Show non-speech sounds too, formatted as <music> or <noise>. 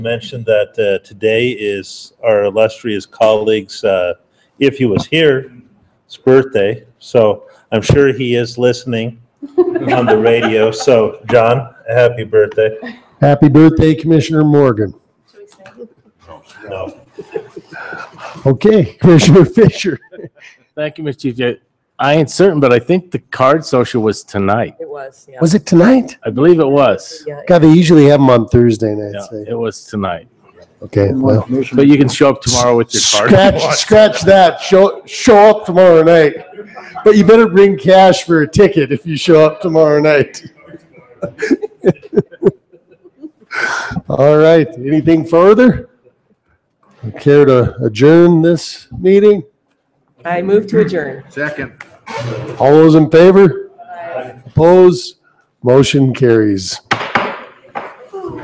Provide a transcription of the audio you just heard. mention that uh, today is our illustrious colleague's, uh, if he was here, his birthday. So I'm sure he is listening on the radio. So, John, happy birthday. Happy birthday, Commissioner Morgan. No. Okay, <laughs> Commissioner Fisher. Thank you, Mr. Chief. Yeah, I ain't certain, but I think the card social was tonight. It was, yeah. Was it tonight? I believe it was. Yeah, God, they usually have them on Thursday Yeah, nights. eh? it was tonight. Okay, well. But you can show up tomorrow with your card. Scratch, scratch that. Show, show up tomorrow night. But you better bring cash for a ticket if you show up tomorrow night. <laughs> All right, anything further? Care to adjourn this meeting? I move to adjourn. All those in favor? Opposed? Motion carries.